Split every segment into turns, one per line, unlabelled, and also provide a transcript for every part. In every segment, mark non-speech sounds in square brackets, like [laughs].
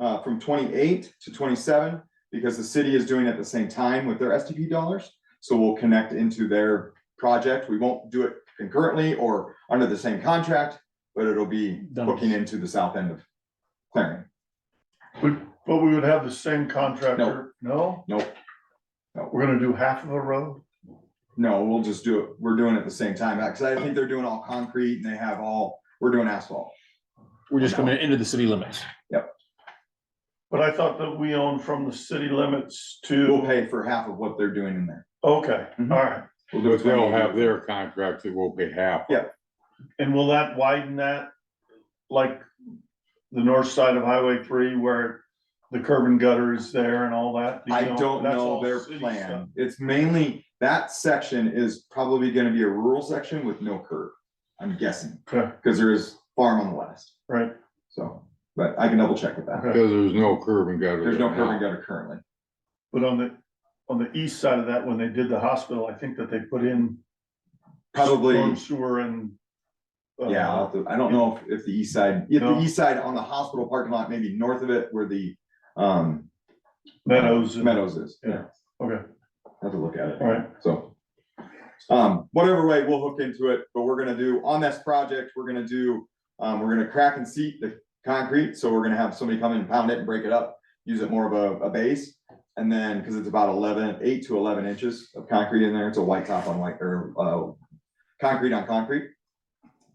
uh, from twenty-eight to twenty-seven, because the city is doing it at the same time with their STP dollars. So we'll connect into their project. We won't do it concurrently or under the same contract, but it'll be
Done.
hooking into the south end of Claring.
But, but we would have the same contractor, no?
Nope.
No, We're gonna do half of a road?
No, we'll just do it. We're doing it at the same time, because I think they're doing all concrete and they have all, we're doing asphalt.
We're just coming into the city limits.
But I thought that we own from the city limits
We'll
to,
pay for half of what they're doing in there.
okay, all
Mhm.
right.
We'll do
But they'll
28.
have their contract, it will be half.
Yeah.
And will that widen that? Like the north side of Highway three where the curb and gutter is there and all that? Do you
I don't
That's
know
all
their
city
plan. It's mainly, that section is probably gonna be a rural section with no curb. I'm guessing,
stuff. Okay,
because there is farm on the west,
right,
so, but I can double check with that.
okay.
Because there's no curb and gutter.
There's no curb and
now.
gutter currently.
But on the, on the east side of that, when they did the hospital, I think that they put in. storm
Probably,
Sewer and. uh,
yeah, I'll have to- I don't know if, if the east side, if the
No.
east side on the hospital parking lot, maybe north of it where the, um,
Meadows. and-
Meadows is.
Yeah. Okay,
Have to look at it.
all right.
So. Um, whatever way, we'll hook into it, but we're gonna do, on this project, we're gonna do, um, we're gonna crack and seat the concrete, so we're gonna have somebody come in and pound it and break it up. Use it more of a, a base, and then, cause it's about eleven, eight to eleven inches of concrete in there, it's a white top on white, or, uh. Concrete on concrete.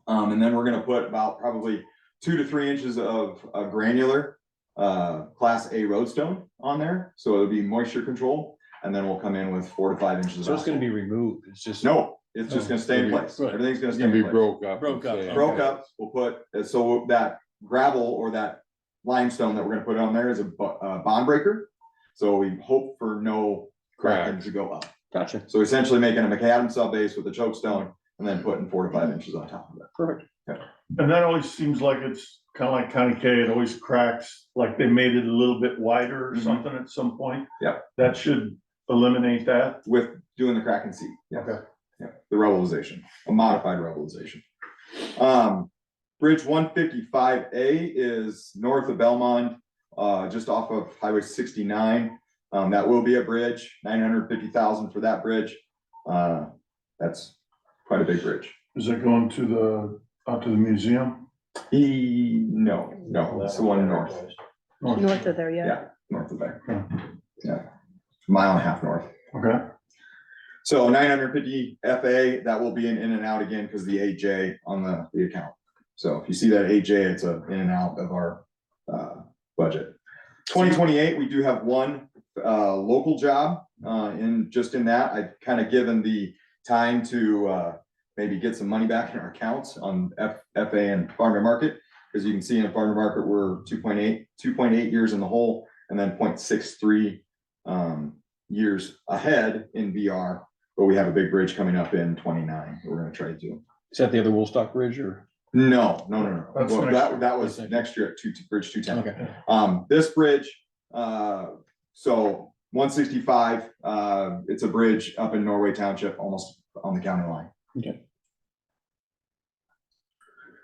Um, and then we're gonna put about probably two to three inches of, uh granular. Uh, class A roadstone on there, so it'll be moisture control, and then we'll come in with four to five inches. of
So it's gonna be removed. It's just.
no, it's just
Oh,
gonna stay in place.
right.
Everything's gonna
It's
stay
gonna be
in place.
broke up.
Broke up, okay.
Broke up, we'll put, uh, so that gravel or that limestone that we're gonna put on there is a bo- uh, bond breaker. So we hope for no cracking
Cracks.
to go up.
Gotcha.
So essentially making a macadam sub base with a choke stone and then putting four to five inches on top of it.
Perfect.
And that always seems like it's kind of like County K, it always cracks, like they made it a little bit wider or
Mhm.
something at some point.
Yep.
That should eliminate that.
With doing the crack and seat. yes.
Okay.
Yeah, the revelization, a modified revelization. Um, Bridge one fifty-five A is north of Belmont, uh, just off of Highway sixty-nine. Um, that will be a bridge, nine hundred fifty thousand for that bridge. Uh, that's quite a big bridge.
Is it going to the, out to the museum?
E, no, no, it's the one north,
North of there, yeah.
north of there. Yeah, mile and a half north.
Okay,
So nine hundred fifty FA, that will be an in and out again because the AJ on the, the account. So if you see that AJ, it's a in and out of our, uh, budget. Twenty twenty-eight, we do have one, uh, local job, uh, in, just in that, I've kind of given the time to, uh, maybe get some money back in our accounts on F, FA and farm to market. As you can see in the farm to market, we're 2.8 2.8 years in the hole and then 0.63 um, years ahead in VR, but we have a big bridge coming up in twenty-nine, that we're gonna try to do.
Is that the other Woolstock Ridge or?
No, no, no, no,
That's
Well,
next
that,
year.
that was
That's next
next year at two, Bridge two ten.
Okay.
Um, this bridge, uh, so one sixty-five, uh, it's a bridge up in Norway Township, almost on the county line.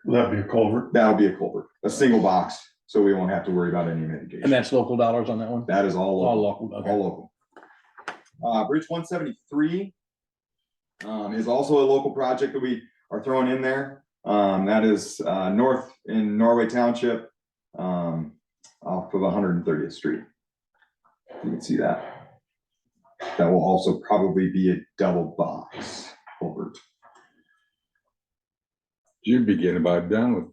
that'd be a culvert.
That'll be a culvert, a single box, so we won't have to worry about any mitigation.
And that's local dollars on that one?
That is all
All
local.
local, okay.
all local. Uh, Bridge one seventy-three. Um, is also a local project that we are throwing in there. Um, that is, uh, north in Norway Township. Um, off of one hundred and thirtieth street. You can see that. That will also probably be a double box over.
You'd be getting about done with,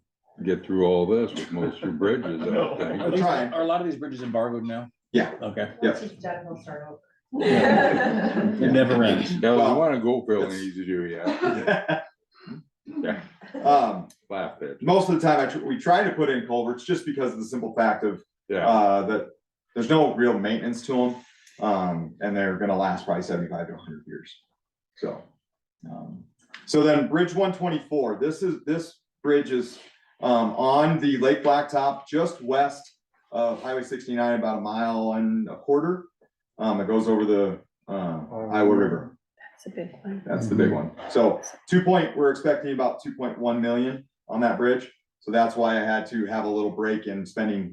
get through all this with most of your
[laughs]
bridges,
No.
I
Are
think.
these-
trying.
are a lot of these bridges embargoed now?
Yeah.
Okay.
Yes.
Once he's done, he'll start over. [laughs]
It never ends.
That was
Well,
one in Goldfield, and
it's-
easy to do, yeah.
[laughs]
Yeah,
Um,
laugh at,
most of the time, I, tr- we try to put in culverts just because of the simple fact of
yeah.
uh, that there's no real maintenance to them. Um, and they're gonna last probably seventy-five to hundred years. So, um, so then Bridge one twenty-four, this is, this bridge is, um, on the Lake Blacktop, just west of Highway sixty-nine, about a mile and a quarter. Um, it goes over the, uh, Iowa River.
It's a big one.
That's the big one. So two point, we're expecting about two point one million on that bridge. So that's why I had to have a little break in spending